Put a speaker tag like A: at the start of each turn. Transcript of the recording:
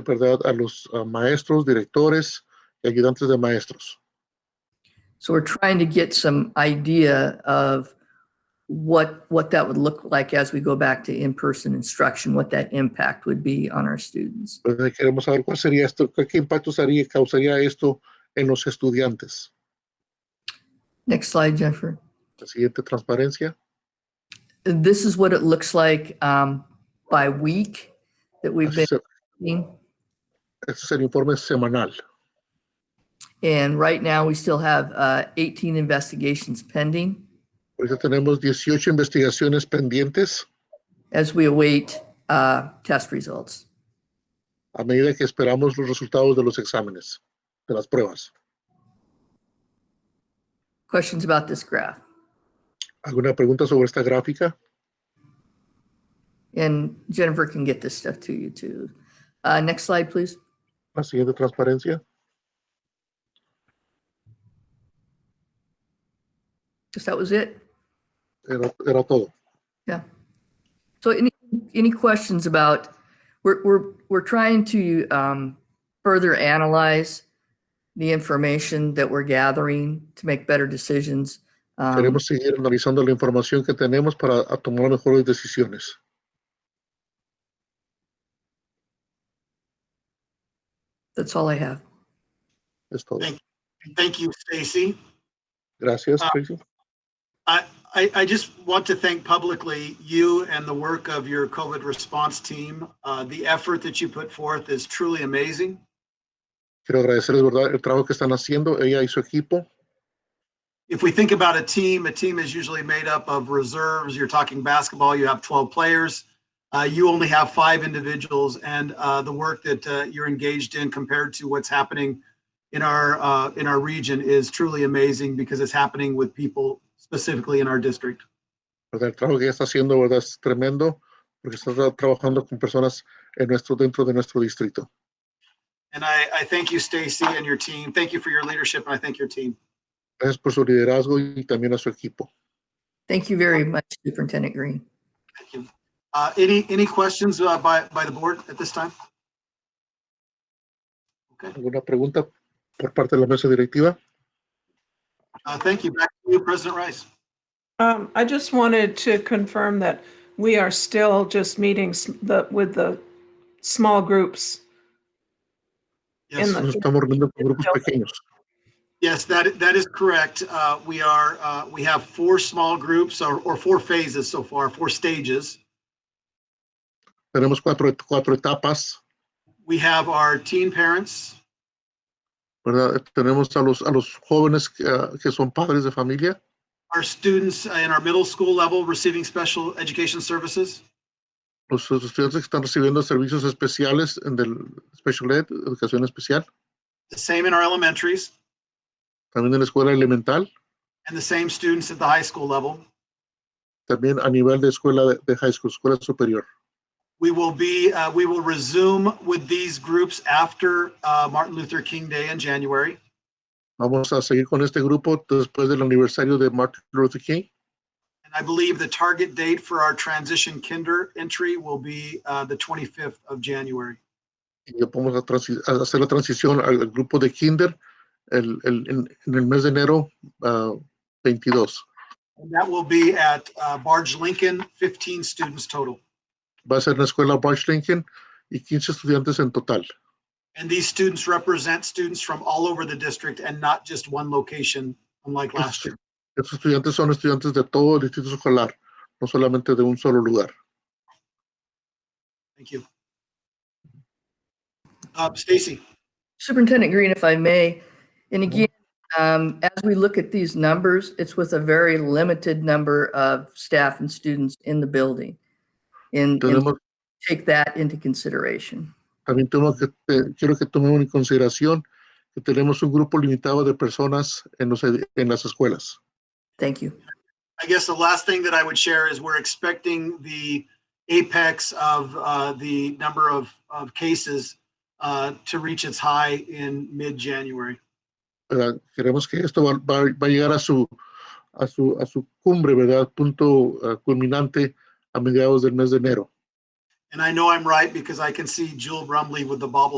A: ¿verdad? a los uh, maestros, directores y ayudantes de maestros.
B: So we're trying to get some idea of what, what that would look like as we go back to in-person instruction, what that impact would be on our students.
A: ¿verdad? Queremos saber cuál sería esto, qué qué impactos haría, causaría esto en los estudiantes.
B: Next slide, Jennifer.
A: La siguiente transparencia.
B: This is what it looks like um, by week that
A: Este
B: we've been
A: es el-
B: seeing.
A: este es el informe semanal.
B: And right now, we still have uh, 18 investigations pending
A: Ahorita tenemos 18 investigaciones pendientes
B: as we await uh, test results.
A: a medida que esperamos los resultados de los exámenes, de las pruebas.
B: Questions about this graph?
A: ¿Alguna pregunta sobre esta gráfica?
B: And Jennifer can get this stuff to you too. Uh, next slide, please.
A: La siguiente transparencia.
B: Because that was it.
A: Era, era todo.
B: So any, any questions about, we're, we're, we're trying to um, further analyze the information that we're gathering to make better decisions. Um,
A: Queremos seguir analizando la información que tenemos para a- tomar mejores decisiones.
B: That's all I have.
A: Es todo.
C: Thank- Thank you, Stacy.
A: Gracias,
C: Ah.
A: Tracy.
C: I, I just want to thank publicly you and the work of your COVID response team. Uh, the effort that you put forth is truly amazing.
A: Quiero agradecerles, ¿verdad?, el trabajo que están haciendo, ella y su equipo.
C: If we think about a team, a team is usually made up of reserves. You're talking basketball, you have 12 players. Uh, you only have five individuals and uh, the work that uh, you're engaged in compared to what's happening in our uh, in our region is truly amazing because it's happening with people specifically in our district.
A: ¿verdad? El trabajo que ella está haciendo, ¿verdad?, es tremendo porque está tra- trabajando con personas en nuestro, dentro de nuestro distrito.
C: And I, I thank you, Stacy, and your team. Thank you for your leadership, and I thank your team.
A: Gracias por su liderazgo y también a su equipo.
B: Thank you very much, Superintendent Green.
C: Thank you. Uh, any any questions uh, by by the board at this time?
A: ¿Alguna pregunta por parte de la mesa directiva?
C: Uh, thank you. Back to you, President Rice.
D: Um, I just wanted to confirm that we are still just meeting s- the, with the small groups.
C: Yes,
D: In the-
A: Nos estamos reuniendo con grupos pequeños.
C: yes, that that is correct. Uh, we are uh, we have four small groups or, or four phases so far, four stages.
A: Tenemos cuatro, cuatro etapas,
C: We have our teen parents.
A: ¿verdad? Tenemos a los, a los jóvenes que, ah, que son padres de familia,
C: Our students in our middle school level receiving special education services,
A: los estudiantes que están recibiendo servicios especiales en del Special Ed, educación especial,
C: the same in our elementaries,
A: también en la escuela elemental,
C: and the same students at the high school level.
A: también a nivel de escuela de, de high school, escuela superior.
C: We will be, uh, we will resume with these groups after uh, Martin Luther King Day in January.
A: Vamos a seguir con este grupo después del aniversario de Martin Luther King.
C: And I believe the target date for our transition kinder entry will be uh, the 25th of January.
A: Y vamos a, transi- a hacer la transición al, al grupo de Kinder el, el- en, en el mes de enero ah, 22.
C: And that will be at uh, Barge Lincoln, 15 students total.
A: Va a ser en la escuela Barge Lincoln y 15 estudiantes en total.
C: And these students represent students from all over the district and not just one location, unlike last year.
A: Estos estudiantes son estudiantes de todo el distrito escolar, no solamente de un solo lugar.
C: Thank you. Uh, Stacy?
B: Superintendent Green, if I may, and again, um, as we look at these numbers, it's with a very limited number of staff and students in the building. And and
A: Tenemos,
B: take that into consideration.
A: también tengo que, te- quiero que tomemos en consideración que tenemos un grupo limitado de personas en, los, ed- en las escuelas.
B: Thank you.
C: I guess the last thing that I would share is we're expecting the apex of uh, the number of, of cases uh, to reach its high in mid-January.
A: ¿verdad? Queremos que esto va, va- va a llegar a su, a su, eh, a su cumbre, ¿verdad? Punto ah, culminante a mediados del mes de enero.
C: And I know I'm right because I can see Jewel Brumley with the bobblehead